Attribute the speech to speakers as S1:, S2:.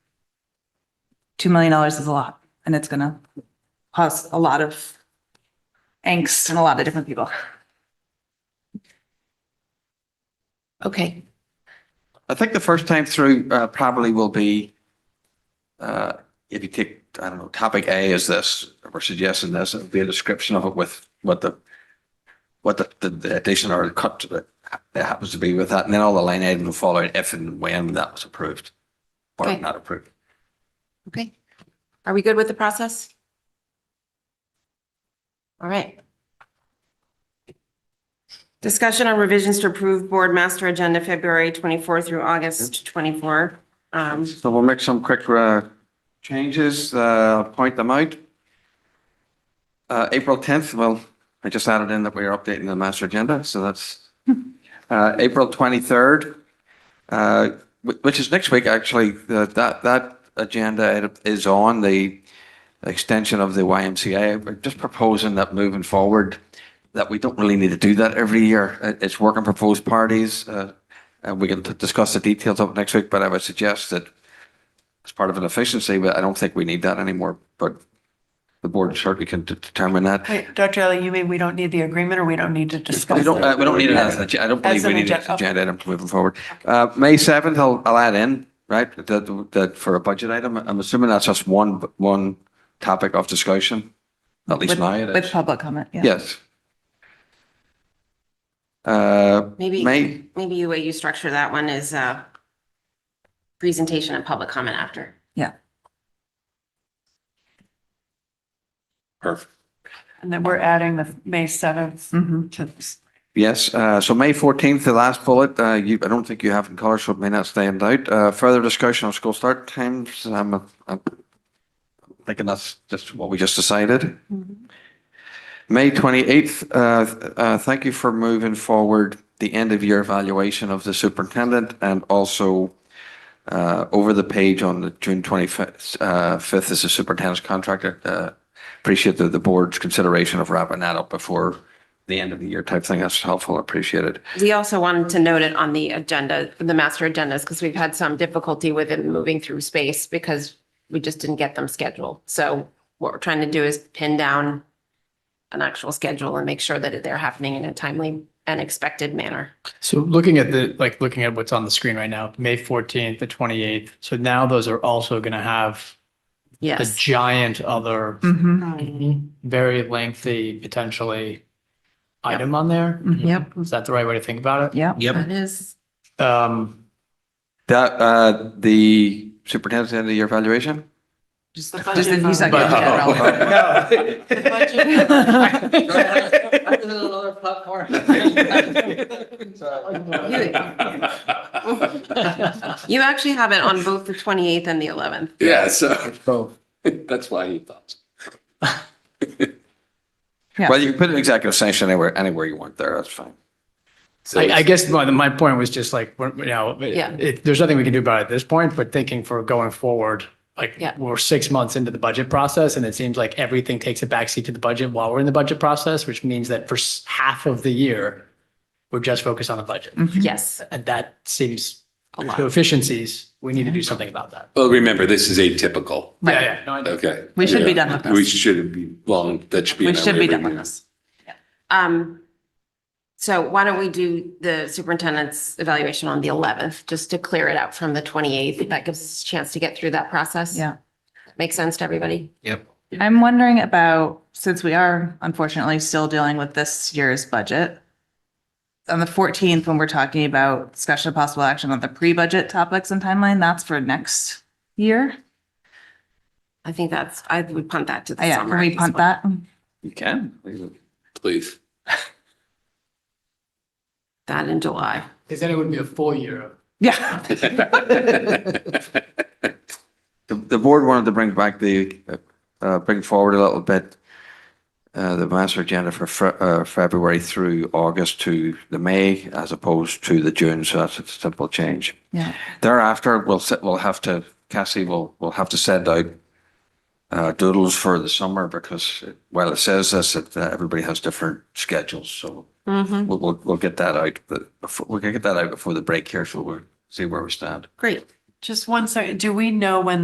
S1: two million dollars is a lot and it's gonna cause a lot of angst in a lot of different people.
S2: Okay,
S3: I think the first time through uh, probably will be, uh, if you take, I don't know, topic A is this, we're suggesting this, it'll be a description of it with what the, what the- the, the addition or cut to it that happens to be with that, and then all the line items will follow it if and when that was approved or
S2: Okay.
S3: not approved.
S2: okay. Are we good with the process? All right.
S4: Discussion on revisions to approve board master agenda February 24 through August 24. Um,
S3: So we'll make some quick uh, changes, uh, point them out. Uh, April 10th, well, I just added in that we are updating the master agenda, so that's uh, April 23rd, uh, wh- which is next week, actually, The- that, that agenda item is on the extension of the YMCA. We're just proposing that moving forward, that we don't really need to do that every year. It- It's work and proposed parties, uh, and we can t- discuss the details of it next week, but I would suggest that as part of an efficiency, but I don't think we need that anymore, but the board certainly can de- determine that.
S5: Wait, Dr. Ellie, you mean we don't need the agreement or we don't need to discuss?
S3: We don't,
S5: it?
S3: uh, we don't need it as an, agen- I don't believe
S5: As an
S3: we need it as
S5: agenda,
S3: an
S5: okay.
S3: agenda item moving forward. Uh, May seventh, I'll, I'll add in, right, that, that for a budget item, I'm assuming that's just one, one topic of discussion, at least
S1: With-
S3: now it is.
S1: With public comment, yeah.
S3: Yes. Uh,
S4: Maybe,
S3: May,
S4: maybe the way you structure that one is uh, presentation and public comment after.
S5: And then we're adding the May 7th
S3: Mm-hmm.
S1: Mhm.
S5: to this.
S3: yes, uh, so May fourteenth, the last bullet, uh, you, I don't think you have in color, so it may not stand out. Uh, further discussion on school start times, um, I'm, I'm thinking that's just what we just decided. May twenty-eighth, uh, th- uh, thank you for moving forward the end of year evaluation of the superintendent and also uh, over the page on the June twenty-fifth, uh, fifth is the superintendent's contract. Uh, appreciate the, the board's consideration of wrapping that up before the end of the year type thing. That's helpful. Appreciated.
S4: We also wanted to note it on the agenda, the master agendas, because we've had some difficulty with it moving through space because we just didn't get them scheduled. So what we're trying to do is pin down an actual schedule and make sure that they're happening in a timely and expected manner.
S6: So looking at the, like, looking at what's on the screen right now, May fourteenth, the twenty-eighth, so now those are also gonna have a
S4: Yes.
S6: giant other,
S1: Mhm.
S6: very lengthy, potentially
S4: Yep.
S6: item on there?
S1: Mhm.
S5: Yep.
S6: Is that the right way to think about
S1: Yeah.
S7: Yep.
S4: That is,
S6: it? Um,
S3: That, uh, the superintendent's end of year evaluation?
S5: Just
S1: Just that he's not getting
S6: But-
S1: that relevant.
S4: you actually have it on both the 28th and the 11th.
S7: Yeah, so that's why he thought.
S1: Yeah.
S3: Well, you can put an executive session anywhere, anywhere you want there. That's fine.
S7: So
S6: I, I
S7: it's-
S6: guess my, my point was just like, we're- you know,
S4: Yeah.
S6: it, there's nothing we can do about it at this point, but thinking for going forward, like,
S4: Yeah.
S6: we're six months into the budget process and it seems like everything takes a backseat to the budget while we're in the budget process, which means that for s- half of the year, we're just focused on the budget.
S1: Mhm.
S4: Yes,
S6: And that seems,
S4: a
S6: to
S4: lot.
S6: efficiencies, we need to do something about that.
S7: Well, remember, this is atypical.
S1: Right.
S6: Yeah, yeah, no, I know.
S7: Okay.
S1: We should be
S7: Yeah.
S1: done with
S7: We
S1: this.
S7: should be, well, that should be.
S1: We
S7: in our
S1: should be
S7: labor
S1: done with
S7: union.
S1: this.
S4: Um, so why don't we do the superintendent's evaluation on the eleventh, just to clear it out from the twenty-eighth? That gives us a chance to get through that process.
S1: Yeah.
S4: Makes sense to everybody?
S1: I'm wondering about, since we are unfortunately still dealing with this year's budget, on the 14th, when we're talking about discussion of possible action on the pre-budget topics and timeline, that's for next year.
S4: I think that's, I would punt that to the
S1: Yeah,
S4: summer.
S1: can we punt that?
S3: You can.
S7: Please.
S4: That in July.
S6: Because then it would be a full year of
S1: Yeah.
S3: The, the board wanted to bring back the, uh, uh, bring forward a little bit, uh, the master agenda for Fe- uh, February through August to the May as opposed to the June. So that's a simple change.
S1: Yeah.
S3: Thereafter, we'll, set- we'll have to, Cassie will, will have to send out uh, doodles for the summer because while it says this, it, uh, everybody has different schedules. So
S4: Mm-hmm.
S3: we'll, we'll, we'll get that out, but before, we can get that out before the break here. So we'll see where we stand.
S4: Great.
S5: Just one second. Do we know when